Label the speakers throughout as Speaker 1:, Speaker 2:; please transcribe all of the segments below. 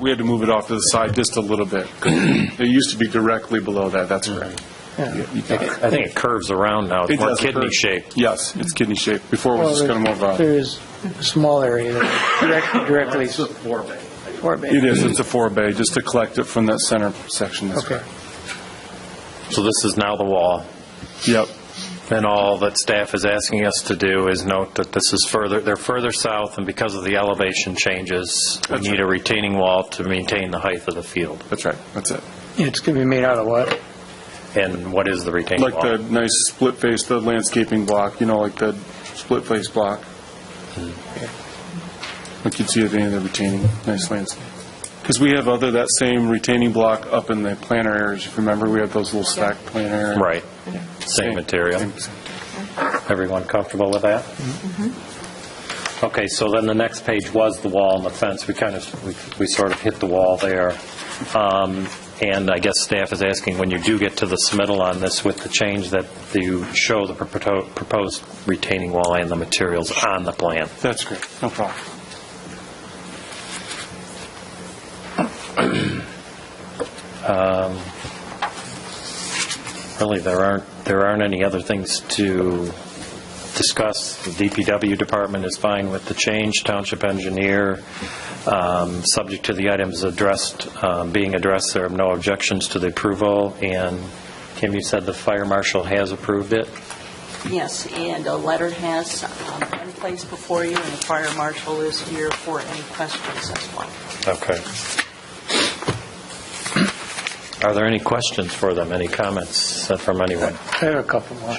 Speaker 1: We had to move it off to the side just a little bit. 'cause It used to be directly below that, that's correct.
Speaker 2: I think it curves around now, it's more
Speaker 1: does occur.
Speaker 2: kidney-shaped.
Speaker 1: Yes, it's kidney shaped. Before it was just kind of more of a,
Speaker 3: There is a small area that direct- directly. It's a four bay.
Speaker 1: it is, it's a four bay, just to collect it from that center section, that's
Speaker 3: Okay.
Speaker 1: correct.
Speaker 2: So this is now the wall,
Speaker 1: Yep,
Speaker 2: and all that staff is asking us to do is note that this is further, they're further south, and because of the elevation changes, we
Speaker 1: That's
Speaker 2: need a retaining wall to maintain the height of the field.
Speaker 1: that's right, that's it.
Speaker 3: It's going to be made out of what?
Speaker 2: And what is the retaining wall?
Speaker 1: Like the nice split face, the landscaping block, you know, like the split face block. Like you'd see at the end of the retaining, nice landscape. Because we have other, that same retaining block up in the planter areas, if you remember, we have those little stack planter areas.
Speaker 2: Right, same material.
Speaker 1: Same- same.
Speaker 2: Everyone comfortable with that? Okay, so then the next page was the wall and the fence. We kind of, we- we sort of hit the wall there. Um, And I guess staff is asking, when you do get to the submittal on this with the change, that you show the propo- proposed retaining wall and the materials on the plan.
Speaker 1: That's great, no problem.
Speaker 2: Really, there aren't, there aren't any other things to discuss. The DPW department is fine with the change, township engineer, um, subject to the items addressed, um, being addressed, there are no objections to the approval, and Kim, you said the fire marshal has approved it?
Speaker 4: Yes, and a letter has um, been placed before you, and the fire marshal is here for any questions as well.
Speaker 2: Okay. Are there any questions for them, any comments from anyone?
Speaker 3: I have a couple more.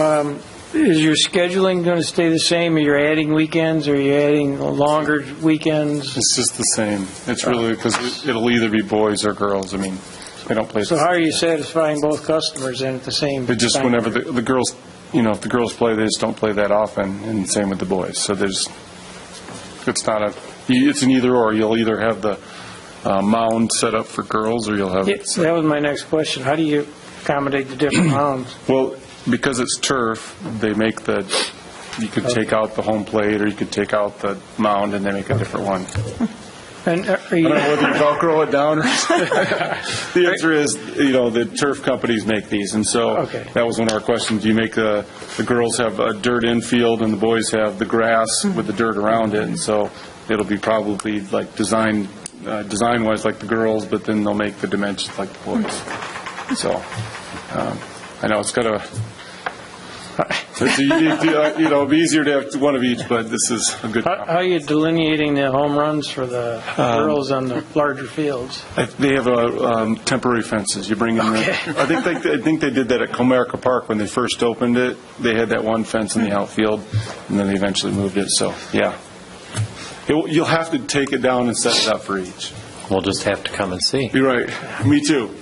Speaker 3: Um, Is your scheduling going to stay the same? Are you adding weekends? Are you adding longer weekends?
Speaker 1: It's just the same. It's really, because it'll either be boys or girls, I mean, they don't play.
Speaker 3: So how are you satisfying both customers then at the same time?
Speaker 1: But just whenever the, the girls, you know, if the girls play, they just don't play that often, and same with the boys. So there's, it's not a, it's an either or. You'll either have the uh, mound set up for girls, or you'll have.
Speaker 3: Yeah, That was my next question. How do you accommodate the different hounds?
Speaker 1: Well, because it's turf, they make the, you could take out the home plate, or you could take out the mound, and they make a different one.
Speaker 3: And uh, are
Speaker 1: I don't know
Speaker 3: you,
Speaker 1: whether Velcro it down or. The answer is, you know, the turf companies make these, and so
Speaker 3: Okay.
Speaker 1: that was one of our questions. Do you make the, the girls have a dirt infield and the boys have the grass with the dirt around it? And so it'll be probably like design, uh, design-wise like the girls, but then they'll make the dimensions like the boys. So, um, I know it's kind of, it's a unique deal. you know, it'd be easier to have one of each, but this is a good.
Speaker 3: how how are you delineating the home runs for the
Speaker 1: Um,
Speaker 3: girls on the larger fields?
Speaker 1: I- They have uh, um, temporary fences. You bring in the, I think, they- I think they did that at Comerica Park when they first opened it. They had that one fence in the outfield, and then they eventually moved it, so, yeah. It will- You'll have to take it down and set it up for each.
Speaker 2: We'll just have to come and see.
Speaker 1: You're right. Me too.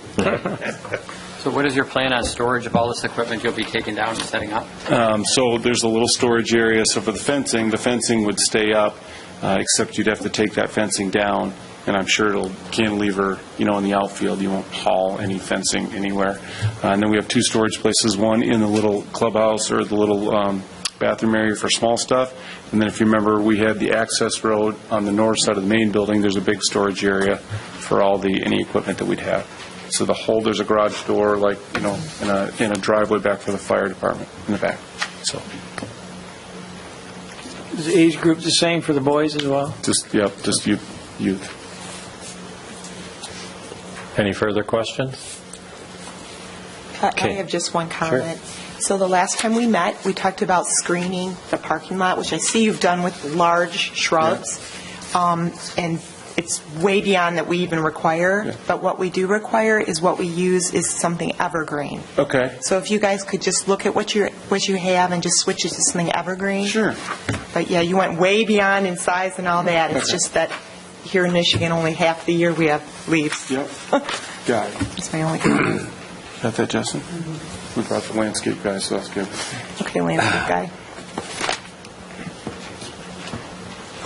Speaker 5: So what is your plan on storage of all this equipment you'll be taking down and setting up?
Speaker 1: Um, So there's a little storage area, so for the fencing, the fencing would stay up, uh, except you'd have to take that fencing down, and I'm sure it'll cantilever, you know, in the outfield, you won't haul any fencing anywhere. Uh, And then we have two storage places, one in the little clubhouse or the little um, bathroom area for small stuff, and then if you remember, we had the access road on the north side of the main building, there's a big storage area for all the, any equipment that we'd have. So the whole, there's a garage door, like, you know, and a, and a driveway back for the fire department in the back, so,
Speaker 3: Is the age group the same for the boys as well?
Speaker 1: just, yep, just youth, youth.
Speaker 2: Any further questions?
Speaker 6: I I
Speaker 2: Okay.
Speaker 6: have just one comment. So the last time we met, we talked about screening the parking lot, which I see you've done with large shrubs. Um, And it's way beyond that we even require, but what we do require is what we use is something evergreen.
Speaker 1: Okay,
Speaker 6: So if you guys could just look at what you, what you have and just switch it to something evergreen.
Speaker 1: sure,
Speaker 6: But yeah, you went way beyond in size and all that. It's just that here in Michigan, only half the year we have leaves.
Speaker 1: yep, got it.
Speaker 6: That's my only comment.
Speaker 1: Got that, Justin? We brought the landscape guy, so that's good.
Speaker 6: Okay, landscape guy.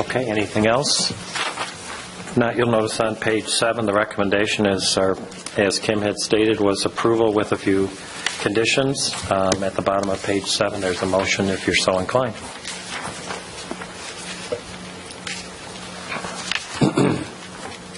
Speaker 2: Okay, anything else? Not, you'll notice on page seven, the recommendation is, or, as Kim had stated, was approval with a few conditions. Um, At the bottom of page seven, there's a motion if you're so inclined.